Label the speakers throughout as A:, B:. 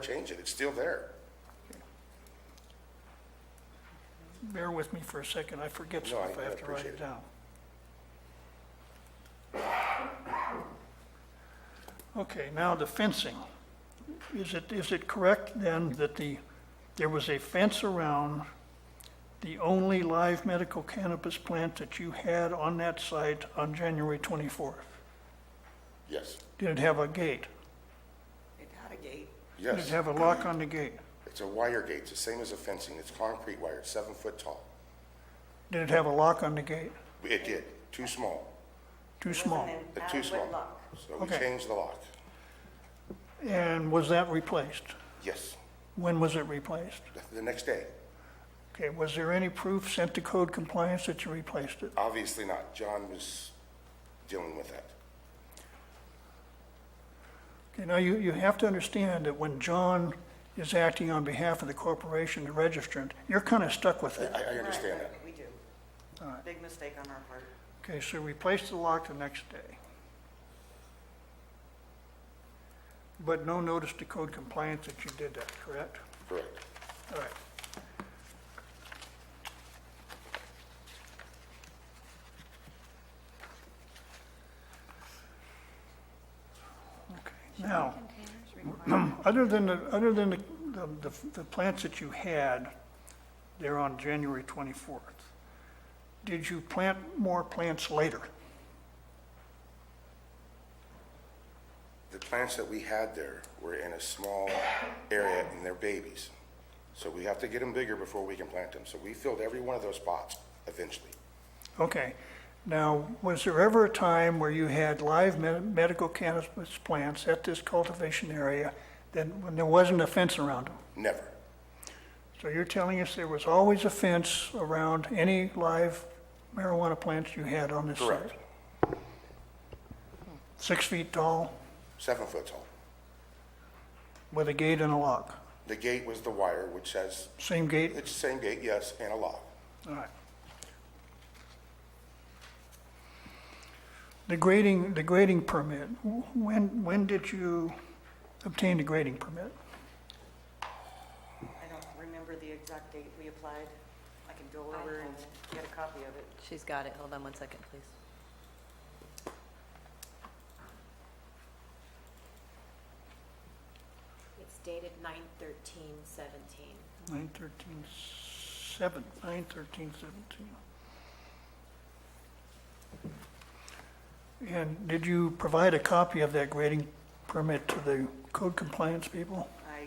A: change it, it's still there.
B: Bear with me for a second, I forget
A: No, I-
B: stuff, I
A: I
B: have to write
A: appreciate
B: it
A: it.
B: down. Okay, now the fencing. Is it, is it correct then that the, there was a fence around the only live medical cannabis plant that you had on that site on January 24th?
A: Yes,
B: Did it have a gate?
C: It had a gate.
B: Did it
A: yes.
B: have a lock on the gate?
A: It's a wire gate, it's the same as a fencing, it's concrete wire, it's seven foot tall.
B: Did it have a lock on the gate?
A: It did, too small,
B: Too
C: It
B: small?
C: wasn't
A: Uh,
C: an
A: too
C: adequate
A: small.
C: lock.
A: So we
B: Okay.
A: changed the lock.
B: And was that replaced?
A: Yes,
B: When was it replaced?
A: The- the next day.
B: Okay, was there any proof sent to code compliance that you replaced it?
A: Obviously not, John was dealing with that.
B: Okay, now you, you have to understand that when John is acting on behalf of the corporation, the registrant, you're kind of stuck with it.
A: I, I understand
C: Right,
A: that.
C: right, We do. Big mistake on our part.
B: Okay, so replace the lock the next day. But no notice to code compliance that you did that, correct?
A: Correct.
B: All right. Okay, now, other than, the other than the, the, the plants that you had there on January 24th, did you plant more plants later?
A: The plants that we had there were in a small area and they're babies. So we have to get them bigger before we can plant them. So we filled every one of those spots eventually.
B: Okay. Now, was there ever a time where you had live med- medical cannabis plants at this cultivation area that, when there wasn't a fence around them?
A: Never.
B: So you're telling us there was always a fence around any live marijuana plants you had on this site?
A: Correct.
B: Six feet tall
A: Seven foot tall.
B: with a gate and a lock?
A: The gate was the wire, which has,
B: Same gate?
A: it's the same gate, yes, and a lock.
B: All right. The grading, the grading permit, wh- when, when did you obtain the grading permit?
C: I don't remember the exact date we applied. I can go over and get a copy of it.
D: She's got it. Hold on one second, please.
E: It's dated nine thirteen seventeen.
B: Nine thirteen seven, nine thirteen seventeen. And did you provide a copy of that grading permit to the code compliance people?
C: I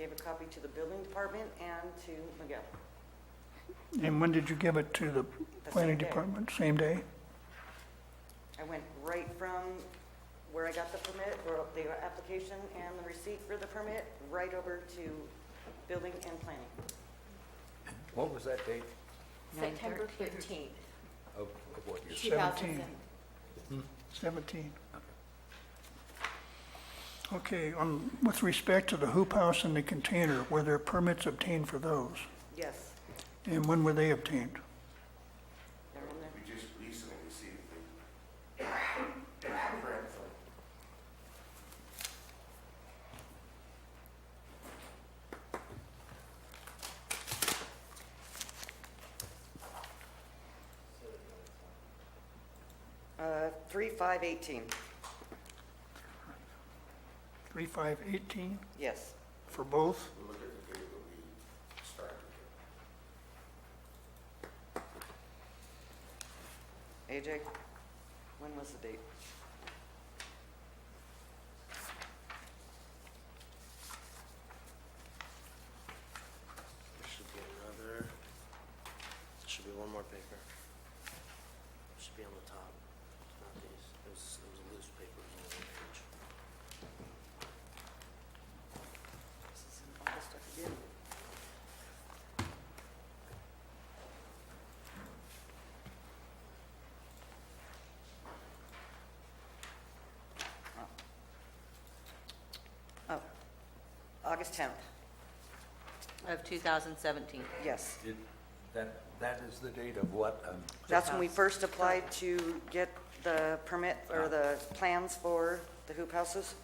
C: gave a copy to the building department and to Miguel.
B: And when did you give it to the
C: The
B: planning
C: same day.
B: department? Same day?
C: I went right from where I got the permit, or the application and the receipt for the permit, right over to building and planning.
F: What was that date
E: September fifteenth,
F: of of what year?
E: two thousand seven.
B: 17. Okay, on, with respect to the hoop house and the container, were there permits obtained for those?
C: Yes,
B: And when were they obtained?
C: they're in there.
A: We just recently received the
C: Uh, Three five eighteen.
B: 3/5/18
C: yes.
B: for both?
A: Look at the date that we started.
C: AJ, when was the date?
G: There should be another, there should be one more paper. It Should be on the top, It's not these. It was, it was a loose paper, it was only one page.
C: This is in August, I forget. Oh, August 10th,
D: Of 2017.
C: yes.
F: Did- That, that is the date of what? um,
C: That's when we first applied to get the permit or the plans for the hoop houses.